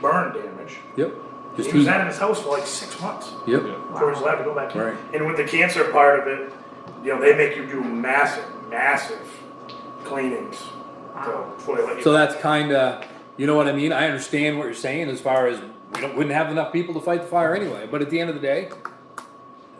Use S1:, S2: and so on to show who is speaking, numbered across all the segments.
S1: burn damage.
S2: Yep. Just
S1: He was
S2: heat.
S1: out of his house for like six months
S2: Yep.
S1: before he was allowed to go back in.
S2: Right.
S1: And with the cancer part of it, you know, they make you do massive, massive cleanings to, before they let you.
S2: So that's kind of, you know what I mean? I understand what you're saying as far as we don't, wouldn't have enough people to fight the fire anyway. But at the end of the day,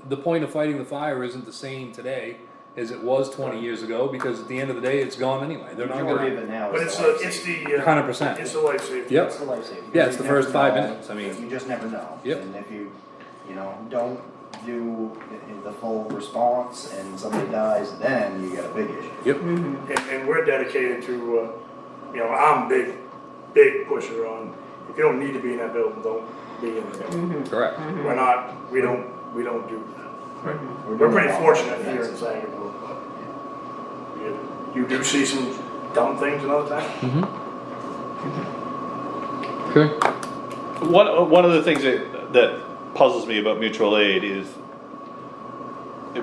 S2: the point of fighting the fire isn't the same today as it was 20 years ago because at the end of the day, it's gone anyway. They're not
S3: Majority of
S2: going
S3: it
S2: to.
S3: now
S1: but
S3: is
S1: it's
S3: the
S1: the,
S3: life
S1: it's
S3: saving.
S1: the uh,
S2: 100%.
S1: It's the life safety.
S2: Yep.
S3: It's the life saving.
S2: Yeah, it's
S3: You
S2: the
S3: never
S2: first five
S3: know.
S2: minutes, I mean-
S3: You just never know.
S2: Yep.
S3: And if you, you know, don't do i- i- the full response and somebody dies, then you got a big issue.
S2: Yep.
S1: And, and we're dedicated to, uh, you know, I'm a big, big pusher on. If you don't need to be in that building, don't be in the building.
S2: Correct.
S1: We're not. We don't. We don't do that. We're
S3: doing
S1: pretty
S3: a lot.
S1: fortunate here in Sangerville, but you- you do see some dumb things another time.
S2: Mm-hmm.
S3: Mm-hmm.
S2: Okay.
S4: One, one of the things that, that puzzles me about mutual aid is,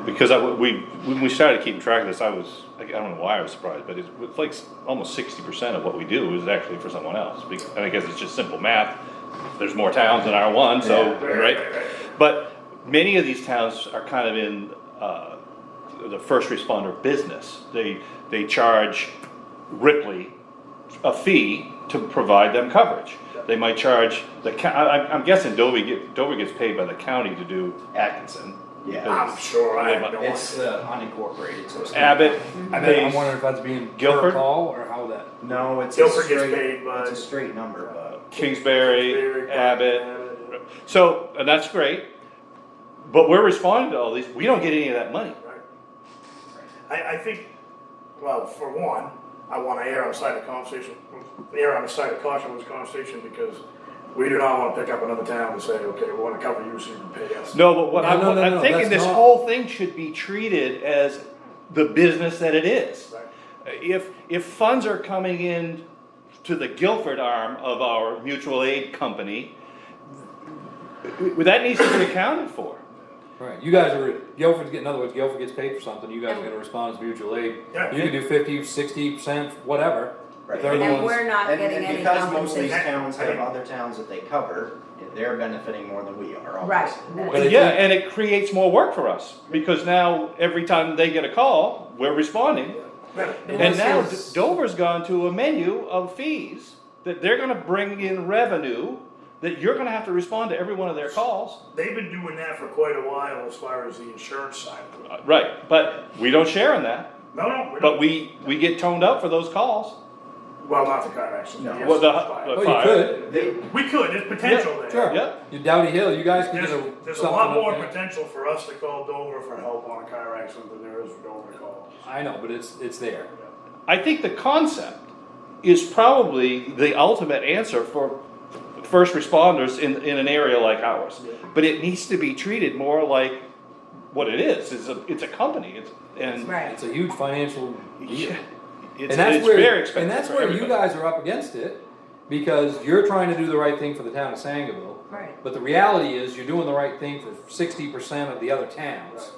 S4: because I, we, when we started keeping track of this, I was, I don't know why I was surprised, but it's it's like almost sixty percent of what we do is actually for someone else. Be- And I guess it's just simple math, there's more towns than R one, so,
S3: Yeah.
S4: right? But many of these towns are kind of in, uh, the first responder business. They, they charge Ripley a fee to provide them coverage. They might charge the, co- I, I'm- I'm guessing Dover get, Dover gets paid by the county to do Atkinson.
S3: Yeah.
S1: I'm sure I have no
S5: It's
S1: idea.
S5: uh, unincorporated, so it's. not-
S2: I
S4: Abbott,
S2: bet, I'm
S4: they,
S2: wondering if that's being per
S4: Guilford?
S2: call or how that.
S3: No, it's a
S1: Guilford gets
S3: straight,
S1: paid by-
S3: it's a straight number, but.
S4: Kingsbury, Abbott, so, and that's great. But we're responding to all these, we don't get any of that money.
S1: Right. I, I think, well, for one, I wanna err on the side of conversation, err on the side of caution with this conversation because we do not wanna pick up another town and say, okay, we wanna cover you so you can pay us.
S4: No, but what
S2: No,
S4: I'm,
S2: no, no, no,
S4: I'm
S2: that's
S4: thinking this
S2: not-
S4: whole thing should be treated as the business that it is.
S1: Right.
S4: If, if funds are coming in to the Guilford arm of our mutual aid company, w- that needs to be accounted for.
S2: Right. You guys are, Guilford's getting, in other words, Guilford gets paid for something. You guys are going to respond as mutual aid.
S1: Yeah.
S2: You can do 50, 60%, whatever.
S3: Right.
S2: They're the
S6: And
S2: ones-
S6: we're not
S3: And,
S6: getting
S3: and
S6: any
S3: because most of these
S6: compensation.
S3: towns have other towns that they cover, they're benefiting more than we are,
S6: Right.
S3: obviously.
S2: But I
S4: Yeah,
S2: think-
S4: and it creates more work for us, because now every time they get a call, we're responding. And now D- Dover's gone to a menu of fees that they're gonna bring in revenue, that you're gonna have to respond to every one of their calls.
S1: They've been doing that for quite a while as far as the insurance side of it.
S4: Uh, Right, but we don't share in that,
S1: No, no, we
S4: but
S1: don't,
S4: we, we get toned up for those calls.
S1: well, not the car accident.
S3: No.
S1: the
S4: Well, the-
S1: accident.
S4: the-
S2: Well,
S4: Fire.
S2: you could.
S3: They,
S1: We could, there's potential there.
S2: Sure.
S4: Yeah.
S2: You Dowdy Hill, you guys can
S1: There's,
S2: get a.
S1: there's a
S2: something
S1: lot
S2: up
S1: more
S2: there.
S1: potential for us to call Dover for help on a car accident than there is for Dover to call.
S2: I know, but it's, it's there.
S4: I think the concept is probably the ultimate answer for first responders in, in an area like ours. But it needs to be treated more like what it is, it's a, it's a company, it's, and.
S6: Right.
S2: It's a huge financial deal.
S4: Yeah, It's,
S2: And that's
S4: it's
S2: where,
S4: very expensive
S2: and that's
S4: for
S2: where you
S4: everybody.
S2: guys are up against it, because you're trying to do the right thing for the town of Sangerville.
S6: Right.
S2: But the reality is, you're doing the right thing for sixty percent of the other towns,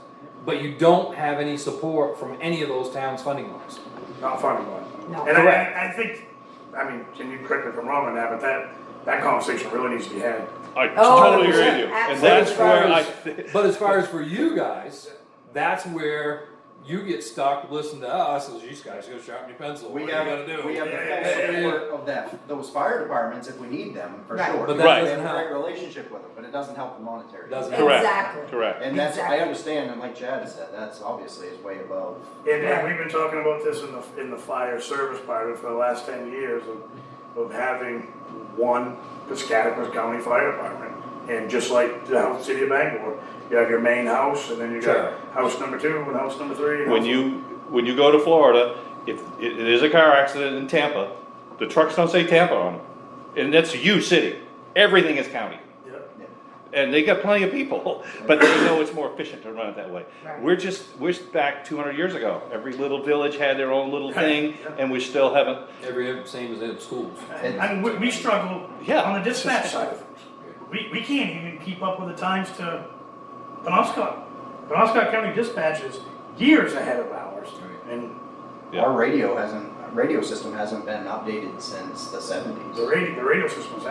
S2: but you don't have any support from any of those towns funding wise.
S1: Not funny one.
S6: No.
S1: And I-
S2: Correct.
S1: I, I think, I mean, can you correct me if I'm wrong on that, but that, that conversation really needs to be had.
S4: I
S6: Oh,
S4: totally agree with you, and
S6: absolutely.
S4: that's where I,
S2: But as far as for you guys, that's where you get stuck, listening to us, as you guys go sharpen your pencil, what
S3: We
S2: are you
S3: have,
S2: gonna do?
S3: we have
S1: Yeah,
S3: the
S1: yeah,
S3: full
S2: yeah,
S3: support of that, those fire departments if we need them, for
S6: Right.
S3: sure.
S2: But
S4: that
S3: We
S2: doesn't
S3: have a
S2: help.
S3: great relationship with them, but it doesn't help the monetary.
S2: Doesn't help.
S6: Exactly.
S4: correct, correct.
S3: And that's, I
S6: Exactly.
S3: understand, and like Chad said, that's obviously is way above.
S1: And, and we've been talking about this in the, in the fire service part of it for the last ten years of, of having one Piscataquis County Fire Department. And just like the house- city of Bangor, you have your main house and then you
S2: Sure.
S1: got house number two and house number three. and
S4: When
S1: house-
S4: you, when you go to Florida, if it it is a car accident in Tampa, the trucks don't say Tampa on them. And that's you city, everything is county.
S1: Yeah.
S4: And they got plenty of people, but they know it's more efficient to run it that way.
S6: Right.
S4: We're just, we're back two hundred years ago. Every little village had their own little thing, and we still haven't,
S2: Every, same as in schools.
S1: I mean, we, we struggle
S4: Yeah.
S1: on the dispatch side of things. We, we can't even keep up with the times to Penobscot. Penobscot County dispatch is years ahead of ours. And
S4: Yeah.
S3: Our radio hasn't, radio system hasn't been updated since the seventies.
S1: the radio, the radio system's